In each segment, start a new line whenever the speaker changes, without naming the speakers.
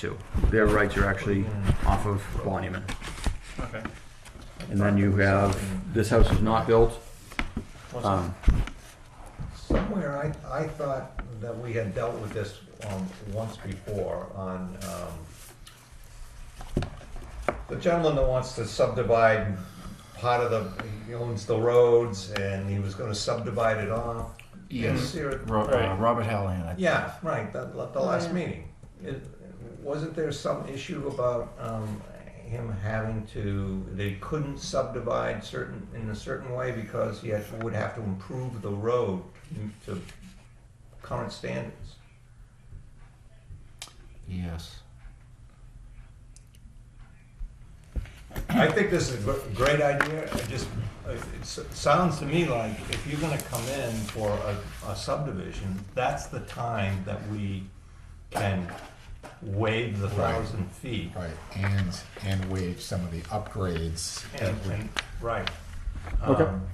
to. Their rights are actually off of Monument.
Okay.
And then you have, this house is not built.
What's that?
Um,
Somewhere I, I thought that we had dealt with this, um, once before on, um, the gentleman that wants to subdivide part of the, he owns the roads and he was gonna subdivide it off.
Yes,
Is
Mm-hmm.
there-
Ro- uh,
Right.
Robert Hallahan. I-
Yeah, right, the, the last
yeah.
meeting. It- Wasn't there some issue about, um, him having to, they couldn't subdivide certain, in a certain way because he had, would have to improve the road to current standards?
Yes.
I think this is a gr- great idea, it just, it s- sounds to me like if you're gonna come in for a, a subdivision, that's the time that we can waive the
Right.
thousand feet.
Right, and, and waive some of the upgrades.
And,
that we-
and, right.
Okay.
Um,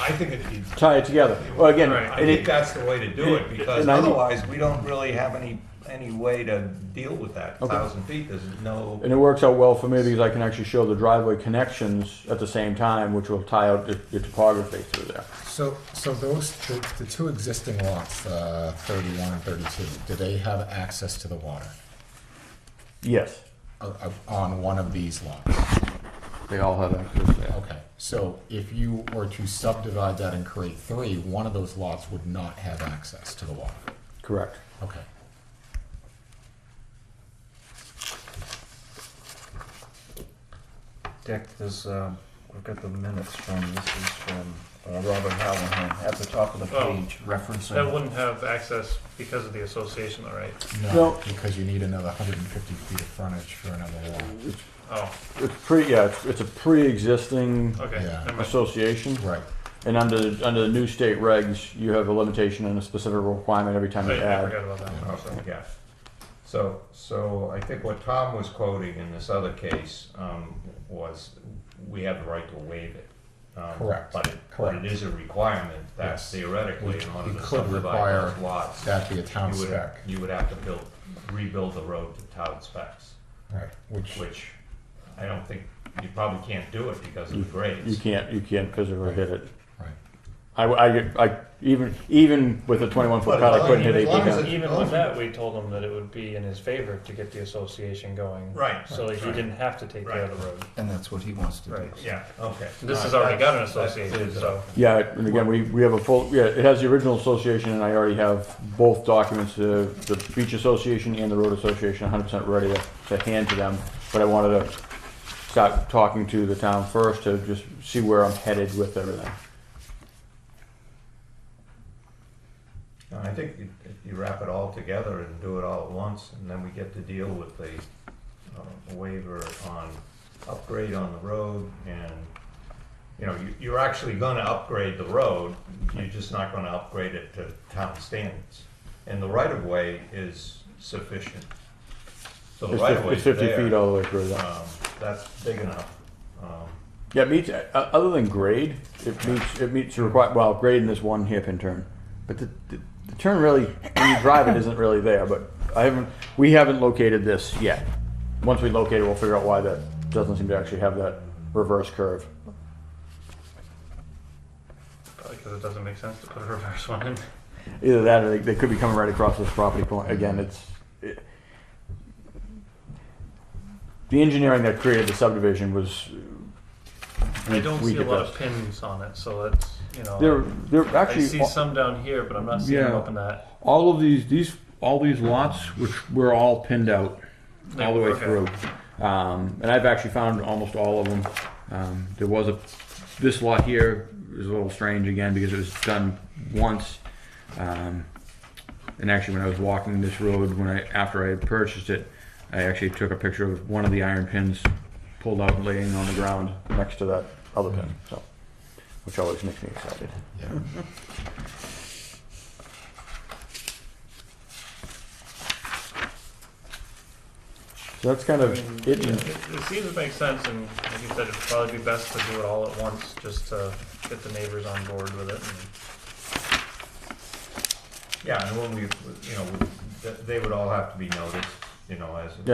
I think it, it-
Tie it together. Well, again,
Right.
I
and
think
it,
that's the way to do it, because
and I-
otherwise, we don't really have any, any way to deal with that.
Okay.
Thousand feet, there's no,
and it works out well for me because I can actually show the driveway connections at the same time, which will tie out the, the topography through there.
So, so those, the, the two existing lots, uh, thirty-one and thirty-two, do they have access to the water?
Yes,
Uh, uh, On one of these lots?
They all have access there.
Okay, so if you were to subdivide that and create three, one of those lots would not have access to the water?
correct.
Okay.
Dick, there's, um, we've got the minutes from, this is from uh, Robert Hallahan at the top of the
Oh.
page
That
referencing.
wouldn't have access because of the association, though, right?
No.
Because you need another hundred and fifty feet of frontage for another lot.
Oh,
It's pre, yeah, it's, it's a pre-existing
okay.
Yeah.
Never mind.
association,
Right,
and under under the new state regs, you have a limitation and a specific requirement every time you
Wait, I
add.
forgot about that one.
okay, yeah. So, so I think what Tom was quoting in this other case, um, was, we have the right to waive it. Um,
Correct,
But it, but
correct.
it is a requirement that
Yes.
theoretically,
We-
in order
we
to
could
subdivide
require
those lots,
that'd be a town
you would,
spec,
you would have to build, rebuild the road to town specs.
right, which,
which I don't think, you probably can't do it because of
You-
the grades.
You can't you can't physically hit it.
right.
I, I, I even even with a 21 foot cut, I couldn't hit
As
eight feet
long as
down.
it-
Even with that, we told him that it would be in his favor to get the association going.
Right.
So that he didn't have to take the
Right.
other road.
And that's what he wants to do.
Yeah, okay.
This has
All
already
right,
got an
that's- that's
association,
clear.
so.
Yeah, and again, we, we have a full, yeah, it has the original association, and I already have both documents, uh, the beach association and the road association, hundred percent ready to, to hand to them. But I wanted to start talking to the town first to just see where I'm headed with everything.
No, I think you- if you wrap it all together and do it all at once, and then we get to deal with the uh, waiver on upgrade on the road, and, you know, you- you're actually gonna upgrade the road, you're just not gonna upgrade it to town standards. And the right-of-way is sufficient. So
It's
the
fif-
right-of-way
It's
is
fifty
there.
feet all the way through that.
um, that's big enough. Um,
Yeah, it meets, uh, other than grade, it meets, it meets the require, well, grade in this one hairpin turn. But the, the, the turn really, when you drive it, isn't really there, but I haven't, we haven't located this yet. Once we locate it, we'll figure out why that doesn't seem to actually have that reverse curve.
Because it doesn't make sense to put a reverse one in.
Either that, or they, they could be coming right across this property point, again, it's. it- The engineering that created the subdivision was.
I don't
we
see a
did
lot
that.
of pins on it, so that's, you
They're,
know.
they're
I
actually.
see some down here, but I'm not seeing them
Yeah.
up in that.
All of these, these, all these lots, which were all pinned out all the way
Okay.
through. Um, and I've actually found almost all of them. Um, there was a, this lot here is a little strange again because it was done once. Um, and actually, when I was walking this road, when I after I had purchased it, I actually took a picture of one of the iron pins pulled out and laying on the ground
Next to that other pin, so, which always makes me excited.
Yeah.
So that's kind of it.
Yeah,
in-
It it seems to make sense, and like you said, it'd probably be best to do it all at once, just to get the neighbors on board with it. and-
Yeah, and when we, you know, we- th- they would all have to be noticed, you know, as,